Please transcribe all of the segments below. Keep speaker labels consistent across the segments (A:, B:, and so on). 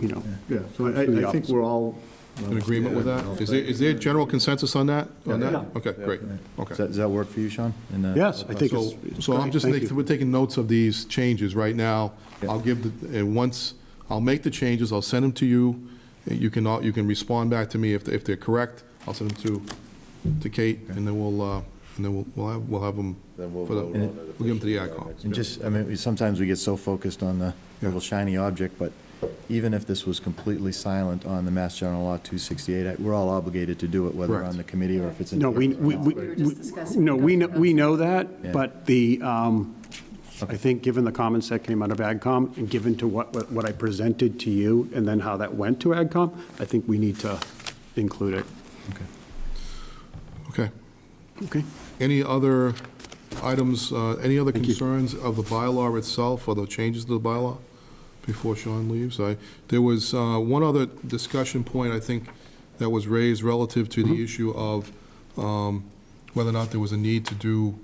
A: you know.
B: Yeah, so
A: Through
B: I-
A: the
B: I, I think
A: office.
B: we're all.
C: In agreement with that? Is there, is there general consensus on that? On
B: Yeah.
C: that? Okay, great,
D: Does
C: okay.
D: that, does that work for you, Sean? And, uh,
A: Yes, I think it's.
C: So,
A: it's
C: so I'm
A: great.
C: just,
A: Thank
C: taking-
A: you.
C: we're taking notes of these changes right now.
D: Yeah.
C: I'll give, the and once, I'll make the changes, I'll send them to you. You can, all- you can respond back to me if, if they're correct. I'll send them to, to Kate, and then we'll, uh, and then we'll, we'll have, we'll have them.
E: Then we'll
C: for the-
E: vote on it.
C: We'll give them to the
E: officially at our
C: AdCom.
E: next
D: And just, I mean, we- sometimes we get so focused on the little shiny object, but even if this was completely silent on the Mass General Law 268, I- we're all obligated to do it, whether
C: Correct.
D: on the committee or if it's in.
A: No, we, we, we,
F: were just discussing
A: no, we know,
F: it.
A: we know that,
D: Yeah.
A: but the, um, I think, given the comments that came out of AgCom, and given to what, what- what I presented to you, and then how that went to AgCom, I think we need to include it.
C: Okay.
A: Okay?
C: Any other items, uh, any other concerns of the bylaw itself or the changes to the bylaw before Sean leaves? I- There was uh, one other discussion point, I think, that was raised relative to the issue of um, whether or not there was a need to do,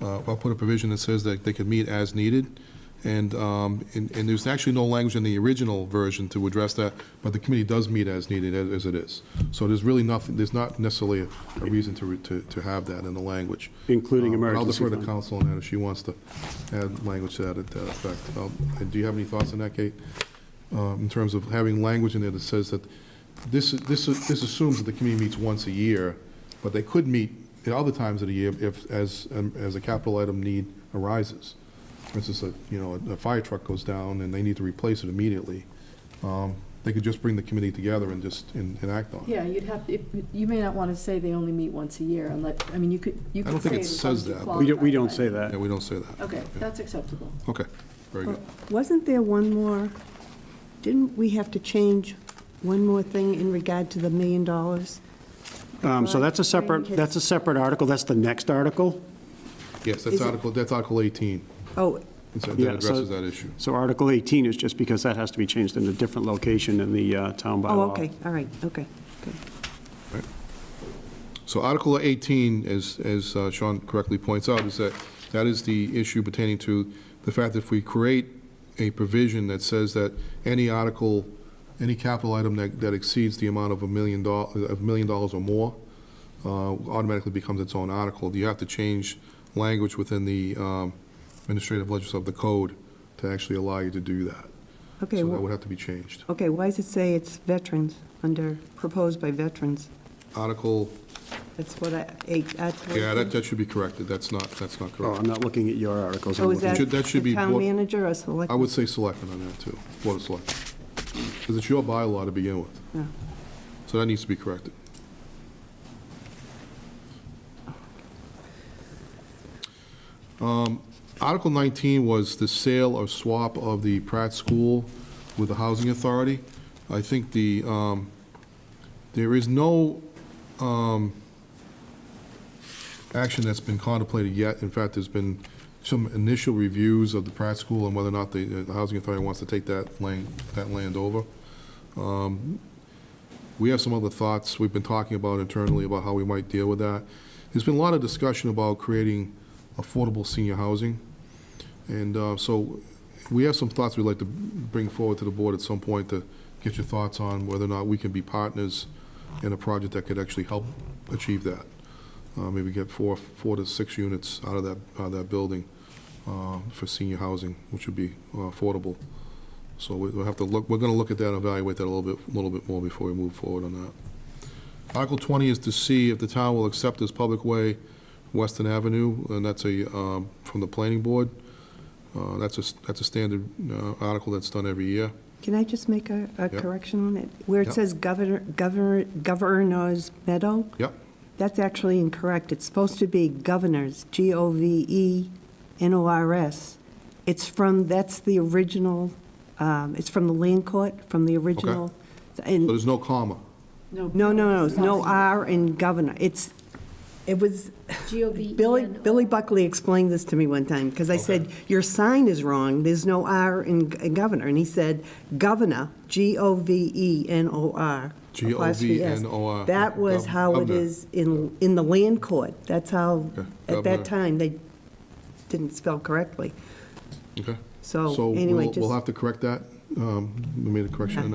C: uh, or put a provision that says that they could meet as needed. And, um, and and there's actually no language in the original version to address that, but the committee does meet as needed, as as it is. So there's really nothing, there's not necessarily a a reason to, re- to to have that in the language.
A: Including
C: Uh, but
A: emergency
C: I'll defer
A: fund.
C: to council on that if she wants to add language to that at that effect. Um, and Do you have any thoughts on that, Kate? Uh, In terms of having language in there that says that this, this, this assumes that the committee meets once a year, but they could meet at other times of the year if, as, um, as a capital item need arises. For instance, a, you know, a- a fire truck goes down and they need to replace it immediately. Um, They could just bring the committee together and just, and and act on it.
F: Yeah, you'd have, if- you may not want to say they only meet once a year, unless, I mean, you could, you
C: I
F: could
C: don't
F: say.
C: think it
F: as long
C: says
F: as you
C: that.
A: We don't, we
F: qualify,
A: don't say
F: but-
C: Yeah,
A: that.
C: we don't say that.
F: Okay, that's acceptable.
C: Okay, very good.
G: Wasn't there one more, didn't we have to change one more thing in regard to the million dollars?
A: Um, So that's a separate, that's a separate article, that's the next article.
C: Yes, that's
G: Is it-
C: Article, that's Article 18.
G: Oh,
C: It's- That
A: Yeah, so-
C: addresses that issue.
A: So Article 18 is just because that has to be changed in a different location in the uh, town bylaw.
G: oh, okay, all right, okay, good.
C: So Article 18, as, as uh, Sean correctly points out, is that, that is the issue pertaining to the fact that if we create a provision that says that any article, any capital item that, that exceeds the amount of a million dollars, of a million dollars or more, uh, automatically becomes its own article. You have to change language within the um, administrative legislature of the code to actually allow you to do that.
G: Okay,
C: So that
G: wh-
C: would have to be changed.
G: Okay, why does it say it's veterans, under, proposed by veterans?
C: Article,
G: That's what I, eight, Article
C: yeah, that,
G: 18.
C: that should be corrected. That's not, that's not
A: Oh, I'm
C: correct.
A: not looking at your articles. I'm
G: So Oh, is
A: looking-
G: that
C: should- that should
G: the
C: be
G: town
C: board-
G: manager or select?
C: I would say selectmen on that too, Board of Selectmen. Because it's your bylaw to begin with,
G: Yeah.
C: so that needs to be corrected. Um, Article 19 was the sale or swap of the Pratt School with the Housing Authority. I think the, um, there is no um, action that's been contemplated yet. In fact, there's been some initial reviews of the Pratt School and whether or not the, uh, the Housing Authority wants to take that land, that land over. Um, We have some other thoughts we've been talking about internally about how we might deal with that. There's been a lot of discussion about creating affordable senior housing. And uh, so we have some thoughts we'd like to bring forward to the board at some point to get your thoughts on whether or not we can be partners in a project that could actually help achieve that uh, maybe get four, four to six units out of that, out of that building uh, for senior housing, which would be uh, affordable. So we- we'll have to look, we're going to look at that and evaluate that a little bit, a little bit more before we move forward on that. Article 20 is to see if the town will accept as public way Weston Avenue, and that's a, um, from the planning board. Uh, That's a, s- that's a standard uh, article that's done every year.
G: Can I just make a, a
C: Yeah.
G: correction on it? Where
C: Yeah.
G: it says governor, governor, governor's meadow?
C: Yep,
G: That's actually incorrect. It's supposed to be governors, E G-O-V-E-N-O-R-S. It's from, that's the original, um, it's from the land court, from the original.
C: so
G: And,
C: there's no comma.
G: no, no, no, it's no R in governor. It's, it was,
F: G-O-V-E-N.
G: uh, Billy, Billy Buckley explained this to me one time, because I said, your sign is wrong, there's no R in g- in governor. And he said, governor, E G-O-V-E-N-O-R.
C: E
G: apostrophe S.
C: G-O-V-N-O-R.
G: That was how it
C: Governor.
G: is in, in the land court. That's how,
C: Okay,
G: at
C: governor.
G: that time, they didn't spell correctly.
C: Okay.
G: So,
C: So
G: Oh, anyway,
C: we'll,
G: just.
C: we'll have to correct that. Um, We made a correction on that.